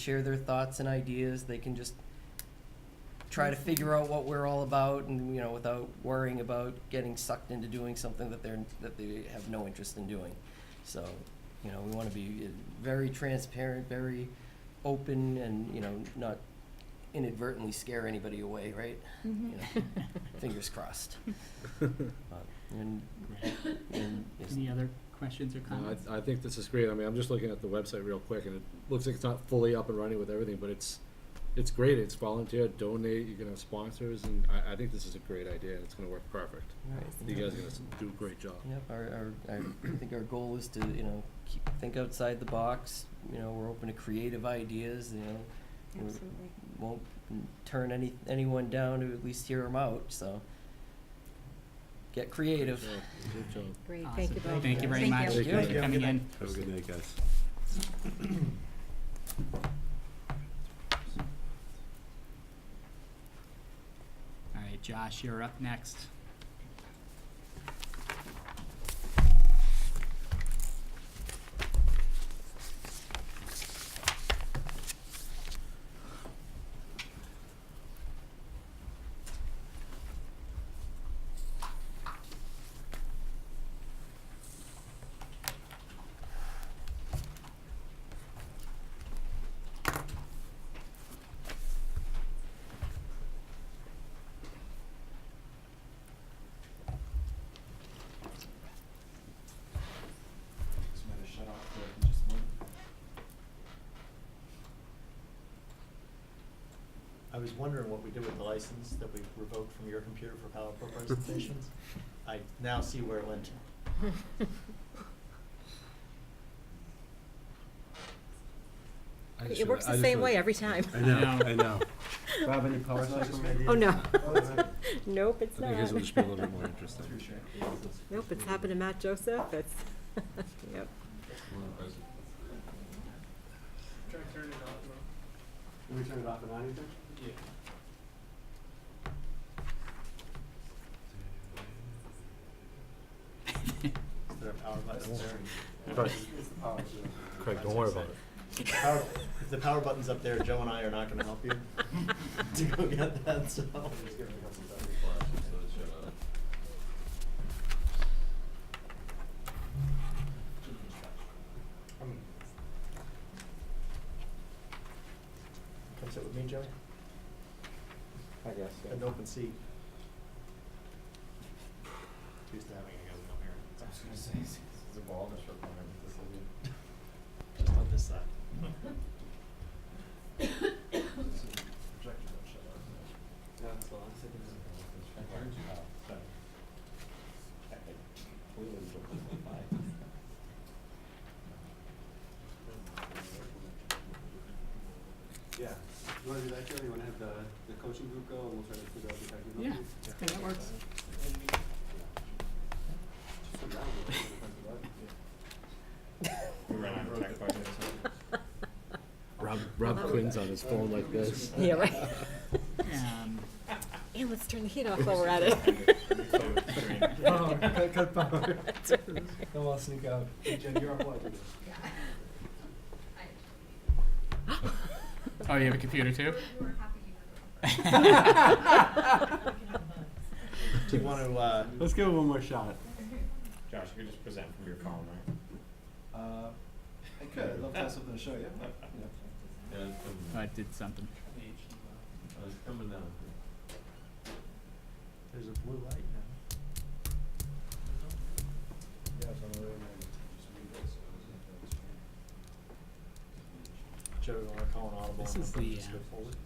share their thoughts and ideas. They can just try to figure out what we're all about and, you know, without worrying about getting sucked into doing something that they're, that they have no interest in doing. So, you know, we want to be uh, very transparent, very open and, you know, not inadvertently scare anybody away, right? Mm-hmm. You know, Fingers crossed. But- And, and is- Any other questions or No, comments? I, I think this is great. I mean, I'm just looking at the website real quick, and it looks like it's not fully up and running with everything, but it's it's great. It's volunteer, donate. You can have sponsors, and I, I think this is a great idea. and It's going to work perfect. Right. You guys are going to do a great job. Yep, our, our, our, I think our goal is to, you know, keep, think outside the box, you know, we're open to creative ideas, you know. we Absolutely. Won't turn any, anyone down to at least hear them out, so. Get creative. Yeah, good job. Great, thank you Awesome. both. Thank you very Thank much. you. Thanks Thank for you. coming in. Have a good night, guys. All right, Josh, you're up next. I was wondering what we do with the license that we revoked from your computer for PowerPoint presentations. I now see where it went. I just It works reali- I the just same way reali- every time. I know, No. I know. Bob, any power That's not cycles? just me. Oh, no. Oh, is it? Nope, it's I not. think his will just be a little bit more interesting. Nope, it's happened to Matt Joseph, it's, yep. Can we turn it off and on, you think? Is there a power button there? Craig- It's the power cycle. Craig, don't worry about it. Power- If the power button's up there, Joe and I are not gonna help you to go get that, It's so. gonna become some battery for us, so it's shut off. Um, Come sit with me, Joe, I guess, yeah. an open seat. Used to having you guys come here. I was gonna say, it's evolved, it's Just on this side. No, it's long, so it's- Yeah, you wanna do that, Joe? You wanna have the, the coaching group go and we'll try to figure out the technical Yeah, piece? I think that works. Just sit down and we'll talk about it. We ran out of tech by then, so. Rob, Rob Quinn's on his phone like this. Yeah, right. Um, And let's turn the heat off while we're at it. Power, cut, cut power. That's right. Then we'll sneak out. Hey, Jen, you're on what? Oh, you have a computer too? Do you want to, uh, Let's give it one more shot. Josh, you could just present from your phone, right? Uh, I could, I'd love to have something to show you. Yeah. Oh, I did something. There's a blue light now. Joe, you want to call an audible? This and is then the, just uh, go forward?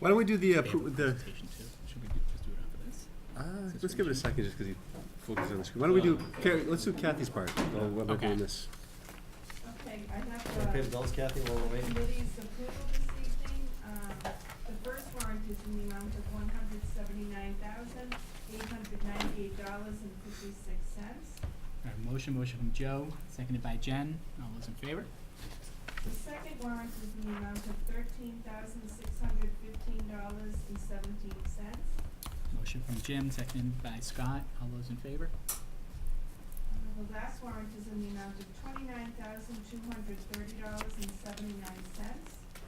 Why don't we do the, uh, They have a pro- the, presentation too. Should we do- just do it after this? uh, let's give it a second just because he focuses on the screen. Why don't we do, Ca- let's do Kathy's part while while we're doing Okay. this. Okay, I You wanna have pay the the bills, Kathy, while we're waiting? committee's approval this evening. Um, The first warrant is in the amount of one hundred seventy-nine thousand, eight hundred ninety-eight dollars and fifty-six cents. All right, motion, motion from Joe, seconded by Jen. All those in favor? The second warrant is in the amount of thirteen thousand, six hundred fifteen dollars and seventeen cents. Motion from Jim, seconded by Scott. All those in favor? The last warrant is in the amount of twenty-nine thousand, two hundred thirty dollars and seventy-nine cents.